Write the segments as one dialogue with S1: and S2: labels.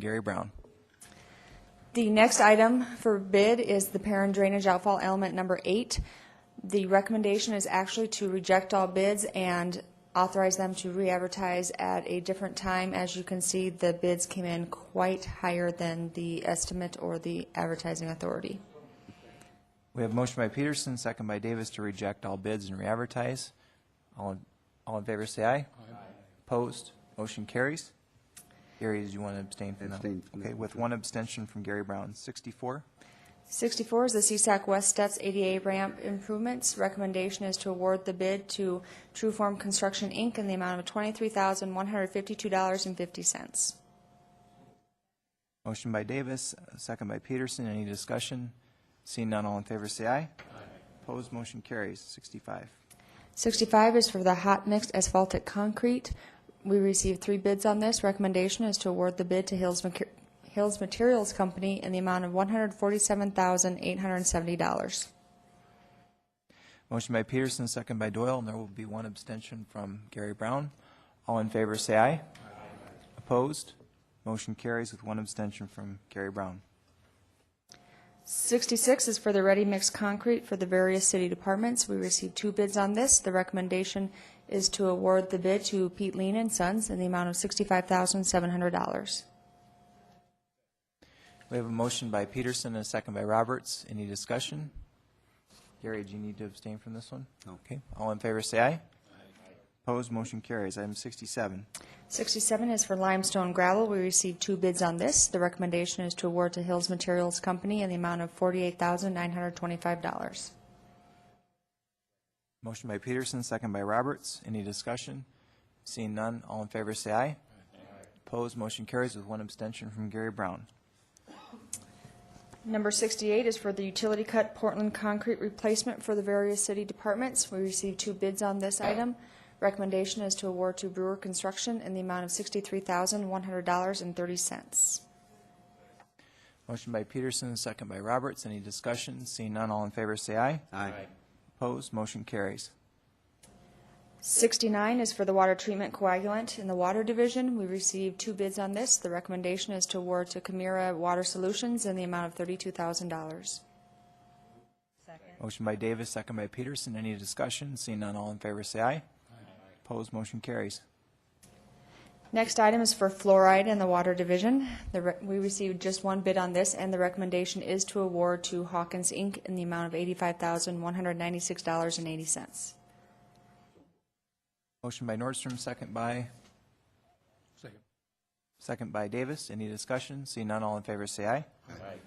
S1: Gary Brown.
S2: The next item for bid is the parent drainage outfall element number eight. The recommendation is actually to reject all bids and authorize them to re-advertise at a different time. As you can see, the bids came in quite higher than the estimate or the advertising authority.
S1: We have motion by Peterson, second by Davis to reject all bids and re-advertise. All, in- all in favor, say aye. Aye. Opposed, motion carries. Gary, did you want to abstain from that?
S3: Abstain from
S1: Okay,
S3: that.
S1: with one abstention from Gary Brown. Sixty-four,
S2: 64 is the CSAC West Steps ADA ramp improvements. Recommendation is to award the bid to Trueform Construction, Inc. in the amount of $23,152.50.
S1: motion by Davis, second by Peterson. Any discussion? Seeing none, all in favor, say aye. Aye. Opposed, motion carries. Sixty-five.
S2: 65 is for the hot mixed asphaltic concrete. We received three bids on this. Recommendation is to award the bid to Hills, Mater- Hills Materials Company in the amount of $147,870.
S1: Motion by Peterson, second by Doyle, and there will be one abstention from Gary Brown. All in favor, say aye. Opposed? Motion carries with one abstention from Gary Brown.
S2: 66 is for the ready mixed concrete for the various city departments. We received two bids on this. The recommendation is to award the bid to Pete Lean and Sons in the amount of $65,700.
S1: We have a motion by Peterson and a second by Roberts. Any discussion? Gary, do you need to abstain from this one?
S3: No.
S1: Okay. All in favor, say aye. Opposed? Motion carries. Item 67.
S2: 67 is for limestone gravel. We received two bids on this. The recommendation is to award to Hills Materials Company in the amount of $48,925.
S1: Motion by Peterson, second by Roberts. Any discussion? Seeing none, all in favor, say aye. Opposed? Motion carries with one abstention from Gary Brown.
S2: Number 68 is for the utility cut Portland concrete replacement for the various city departments. We received two bids on this item. Recommendation is to award to Brewer Construction in the amount of $63,100.30.
S1: Motion by Peterson, second by Roberts. Any discussion? Seeing none, all in favor, say aye.
S3: Aye.
S1: Opposed? Motion carries.
S2: 69 is for the water treatment coagulant in the Water Division. We received two bids on this. The recommendation is to award to Camira Water Solutions in the amount of $32,000.
S1: Motion by Davis, second by Peterson. Any discussion? Seeing none, all in favor, say aye. Opposed? Motion carries.
S2: Next item is for fluoride in the Water Division. The re- We received just one bid on this, and the recommendation is to award to Hawkins, Inc. in the amount of $85,196.80.
S1: Motion by Nordstrom, second by,
S4: Second.
S1: second by Davis. Any discussion? Seeing none, all in favor, say aye.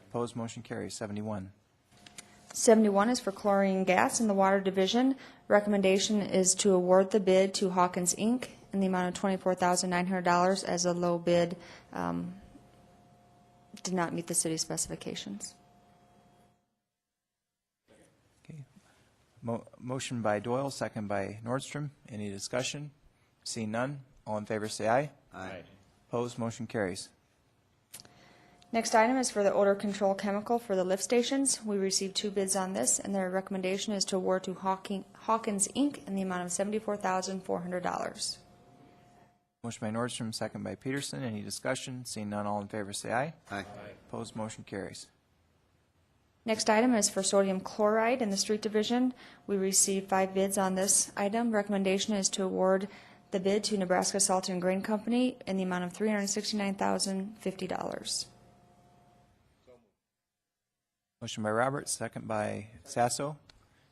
S1: Opposed? Motion carries. 71.
S2: 71 is for chlorine gas in the Water Division. Recommendation is to award the bid to Hawkins, Inc. in the amount of $24,900 as a low bid, um, did not meet the city specifications.
S1: Okay. Mo- Motion by Doyle, second by Nordstrom. Any discussion? Seeing none, all in favor, say aye.
S3: Aye.
S1: Opposed? Motion carries.
S2: Next item is for the odor control chemical for the lift stations. We received two bids on this, and their recommendation is to award to Hawking- Hawkins, Inc. in the amount of $74,400.
S1: Motion by Nordstrom, second by Peterson. Any discussion? Seeing none, all in favor, say aye.
S3: Aye.
S1: Opposed, motion carries.
S2: Next item is for sodium chloride in the street division. We received five bids on this item. Recommendation is to award the bid to Nebraska Salt and Grain Company in the amount of $369,050.
S1: Motion by Roberts, second by Sasso.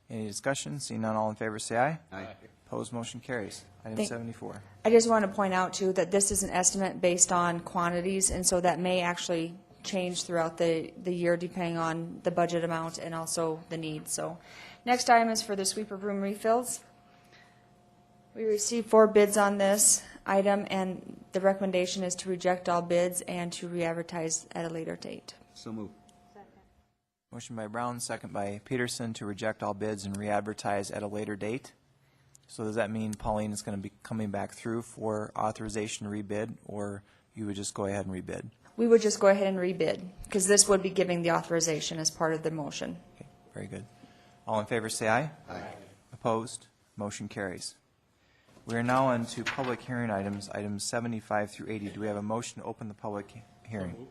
S1: Any discussion? Seeing none, all in favor, say aye.
S3: Aye.
S1: Opposed, motion carries. Item
S2: Thank-
S1: 74.
S2: I just want to point out, too, that this is an estimate based on quantities, and so that may actually change throughout the, the year depending on the budget amount and also the need, so. Next item is for the sweeper broom refills. We received four bids on this item, and the recommendation is to reject all bids and to re-advertise at a later date.
S3: So move.
S1: Motion by Brown, second by Peterson to reject all bids and re-advertise at a later date. So does that mean Pauline is going to be coming back through for authorization to rebid, or you would just go ahead and rebid?
S2: We would just go ahead and rebid, because this would be giving the authorization as part of the motion.
S1: Okay, very good. All in favor, say aye.
S3: Aye.
S1: Opposed? Motion carries. We are now on to public hearing items, items 75 through 80. Do we have a motion to open the public hearing?